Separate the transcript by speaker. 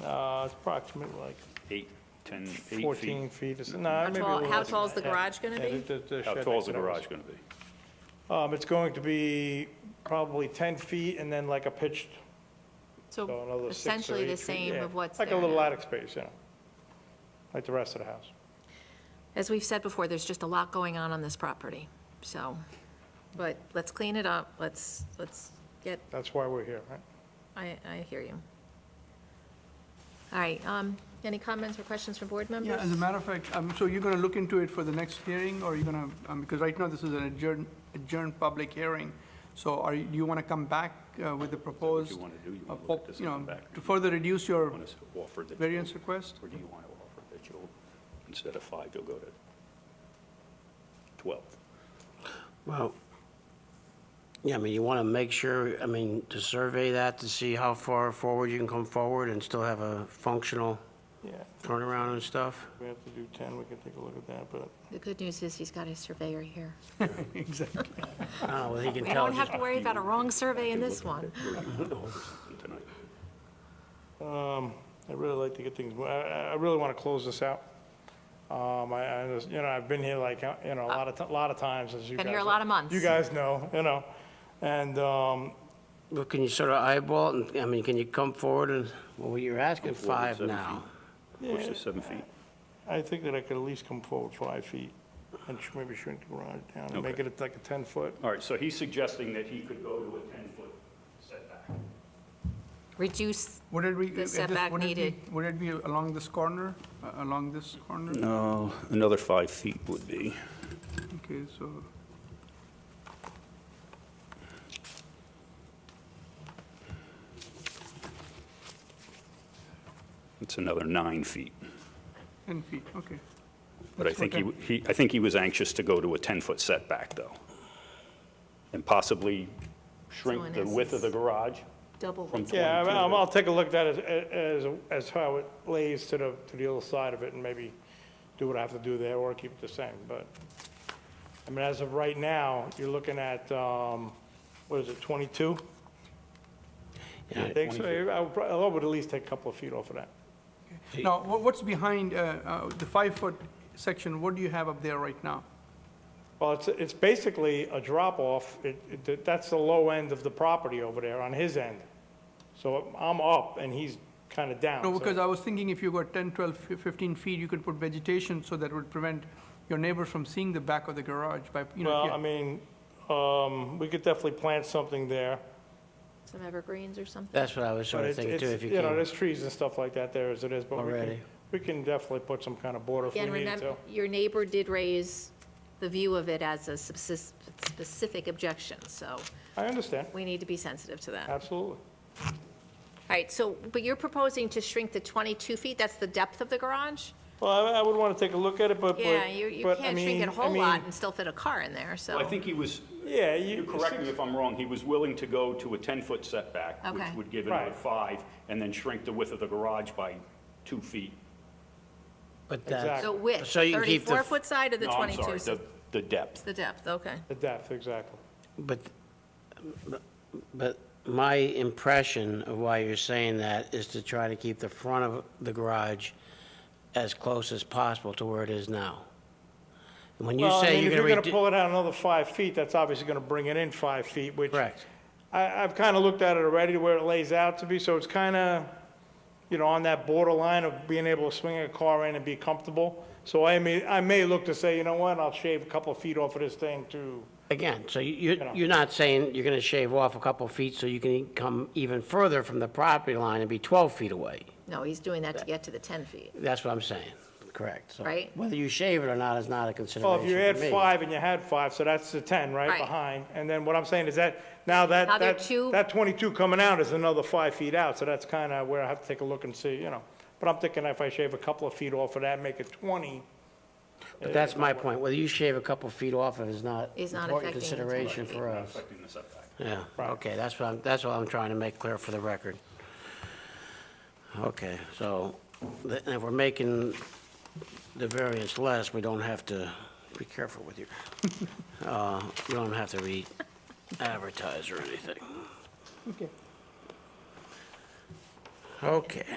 Speaker 1: now Uh, it's approximately like
Speaker 2: Eight, 10, eight feet?
Speaker 1: 14 feet. or so- No,
Speaker 3: How
Speaker 1: maybe a
Speaker 3: tall-
Speaker 1: little
Speaker 3: how
Speaker 1: less than
Speaker 3: tall's the
Speaker 1: that.
Speaker 3: garage gonna
Speaker 1: Yeah,
Speaker 3: be?
Speaker 1: the- the- the
Speaker 2: How
Speaker 1: shed
Speaker 2: tall is the
Speaker 1: that was-
Speaker 2: garage going to be?
Speaker 1: Um, It's going to be probably 10 feet and then like a pitched, so
Speaker 3: So
Speaker 1: another six or
Speaker 3: essentially the
Speaker 1: eight feet,
Speaker 3: same
Speaker 1: yeah.
Speaker 3: of what's there
Speaker 1: Like a little
Speaker 3: now.
Speaker 1: attic space, yeah. Like the rest of the house.
Speaker 3: As we've said before, there's just a lot going on on this property, so, but let's clean it up, let's, let's get,
Speaker 1: That's why we're here, right?
Speaker 3: I, I hear you. All right, um, any comments or questions from board members?
Speaker 4: Yeah, as a matter of fact, um, so you're going to look into it for the next hearing, or you're going to, because right now this is an adjourned, adjourned public hearing, so are, you- you want to come back uh, with the proposed?
Speaker 2: you wanna do? You
Speaker 4: uh,
Speaker 2: wanna look
Speaker 4: pop-
Speaker 2: at this
Speaker 4: you
Speaker 2: and
Speaker 4: know,
Speaker 2: come back?
Speaker 4: To further reduce your
Speaker 2: Want to offer that? you'll-
Speaker 4: variance request?
Speaker 2: Or do you want to offer that you'll, instead of five, you'll go to 12?
Speaker 5: Well, yeah, I mean, you want to make sure, I mean, to survey that, to see how far forward you can come forward and still have a functional
Speaker 1: Yeah,
Speaker 5: turnaround and stuff.
Speaker 1: if we have to do 10, we can take a look at that, but
Speaker 3: The good news is he's got his surveyor here.
Speaker 4: Exactly.
Speaker 5: I don't know whether he can
Speaker 3: We
Speaker 5: tell.
Speaker 3: don't have to worry about a wrong survey in this one.
Speaker 2: Tonight.
Speaker 1: Um, I really like to get things, mo- I, I- I really want to close this out. Um, I, I, just- you know, I've been here like, uh, you know, a lot of, ti- lot of times, as you guys.
Speaker 3: Been here a lot of months.
Speaker 1: You guys know, you know, and, um,
Speaker 5: Well, can you sort of eyeball it? and- I mean, can you come forward and, well, you're asking
Speaker 2: Come forward
Speaker 5: five
Speaker 2: seven
Speaker 5: now.
Speaker 2: Push to seven feet.
Speaker 1: I think that I could at least come forward five feet and sh- maybe shrink the garage down and make
Speaker 2: Okay.
Speaker 1: it like a ten foot.
Speaker 2: All right, so he's suggesting that he could go to a 10-foot setback.
Speaker 3: Reduce,
Speaker 4: Would it be?
Speaker 3: The
Speaker 4: at this-
Speaker 3: setback
Speaker 4: would it be-
Speaker 3: needed.
Speaker 4: Would it be along this corner, uh, along this corner?
Speaker 2: No, another five feet would be.
Speaker 4: Okay, so,
Speaker 2: It's another nine feet.
Speaker 4: 10 feet, okay.
Speaker 2: But I
Speaker 4: That's
Speaker 2: think he,
Speaker 4: okay.
Speaker 2: he, I think he was anxious to go to a 10-foot setback, though. And possibly
Speaker 3: So in
Speaker 2: shrink the width of the
Speaker 3: essence-
Speaker 2: garage
Speaker 3: double
Speaker 2: from
Speaker 3: what's
Speaker 2: 22.
Speaker 1: Yeah, I'll,
Speaker 2: to-
Speaker 1: I'll take a look at that as, as, as how it lays to the, to the other side of it and maybe do what I have to do there or keep it the same, but, I mean, as of right now, you're looking at, um, what is it, twenty-two? I think so, I would, prob- I would at least take a couple of feet off of that.
Speaker 4: Now, wha- what's behind uh, uh, the five-foot section, what do you have up there right now?
Speaker 1: Well, it's, it's basically a drop-off, it, it, that's the low end of the property over there on his end. So I'm up and he's kind of down.
Speaker 4: No,
Speaker 1: so-
Speaker 4: because I was thinking if you got 10, 12, fif- 15 feet, you could put vegetation, so that would prevent your neighbors from seeing the back of the garage by, you know. if
Speaker 1: Well,
Speaker 4: you-
Speaker 1: I mean, um, we could definitely plant something there,
Speaker 3: some evergreens or something?
Speaker 5: That's what I was
Speaker 1: but
Speaker 5: sort of
Speaker 1: it's,
Speaker 5: thinking too,
Speaker 1: it's-
Speaker 5: if you
Speaker 1: you know,
Speaker 5: can.
Speaker 1: there's trees and stuff like that there as it is, but we can,
Speaker 5: Already.
Speaker 1: we can definitely put some kind of border if we
Speaker 3: Again,
Speaker 1: needed
Speaker 3: remember,
Speaker 1: to.
Speaker 3: your neighbor did raise the view of it as a subsist- specific objection, so
Speaker 1: I understand,
Speaker 3: we need to be sensitive to that. All
Speaker 1: absolutely.
Speaker 3: right, so, but you're proposing to shrink to 22 feet, that's the depth of the garage?
Speaker 1: Well, I, I would want to take a look at it, but, but, but,
Speaker 3: Yeah,
Speaker 1: I mean,
Speaker 3: you, you can't shrink it a
Speaker 1: I
Speaker 3: whole
Speaker 1: mean,
Speaker 3: lot and still fit a car in there,
Speaker 2: Well, I
Speaker 3: so.
Speaker 2: think he was,
Speaker 1: Yeah, you.
Speaker 2: you correct me if I'm wrong, he was willing to go to a 10-foot setback, which
Speaker 3: Okay.
Speaker 2: would give another
Speaker 1: Right.
Speaker 2: five, and then shrink the width of the garage by two feet.
Speaker 5: But that,
Speaker 1: Exactly.
Speaker 3: So width,
Speaker 5: So you can keep the-
Speaker 3: 34-foot side of the
Speaker 2: No, I'm sorry,
Speaker 3: 22?
Speaker 2: the, the depth.
Speaker 3: The depth, okay.
Speaker 1: The depth, exactly.
Speaker 5: but, but my impression of why you're saying that is to try to keep the front of the garage as close as possible to where it is now. And When you
Speaker 1: Well, I
Speaker 5: say
Speaker 1: mean,
Speaker 5: you're
Speaker 1: if
Speaker 5: going to.
Speaker 1: you're going to pull it out another five feet, that's obviously going to bring it in five feet, which.
Speaker 5: Correct.
Speaker 1: I, I've kind of looked at it already to where it lays out to be, so it's kind of, you know, on that borderline of being able to swing a car in and be comfortable. So I may, I may look to say, you know what, I'll shave a couple of feet off of this thing to,
Speaker 5: Again, so you- you,
Speaker 1: know.
Speaker 5: you're not saying you're going to shave off a couple feet so you can e-, come even further from the property line and be 12 feet away?
Speaker 3: No, he's doing that to get to the 10 feet.
Speaker 5: That's what I'm saying, correct? So
Speaker 3: Right.
Speaker 5: Whether you shave it or not is not a consideration
Speaker 1: well, if you had
Speaker 5: for me.
Speaker 1: five and you had five, so that's the 10 right
Speaker 3: Right.
Speaker 1: behind. And then what I'm saying is that, now that,
Speaker 3: Now they're
Speaker 1: that,
Speaker 3: two-
Speaker 1: that 22 coming out is another five feet out, so that's kind of where I have to take a look and see, you know. But I'm thinking if I shave a couple of feet off of that, make it 20,
Speaker 5: But that's my point, whether you shave a couple feet off of it is not
Speaker 3: Is not
Speaker 5: important
Speaker 3: affecting the 12
Speaker 5: consideration
Speaker 3: feet.
Speaker 5: for us.
Speaker 2: Affecting the setback.
Speaker 5: Yeah,
Speaker 1: Right.
Speaker 5: okay, that's what I'm, that's what I'm trying to make clear for the record. Okay, so th- if we're making the variance less, we don't have to, be careful with your, uh, we don't have to re-advertise or anything. Okay. Okay.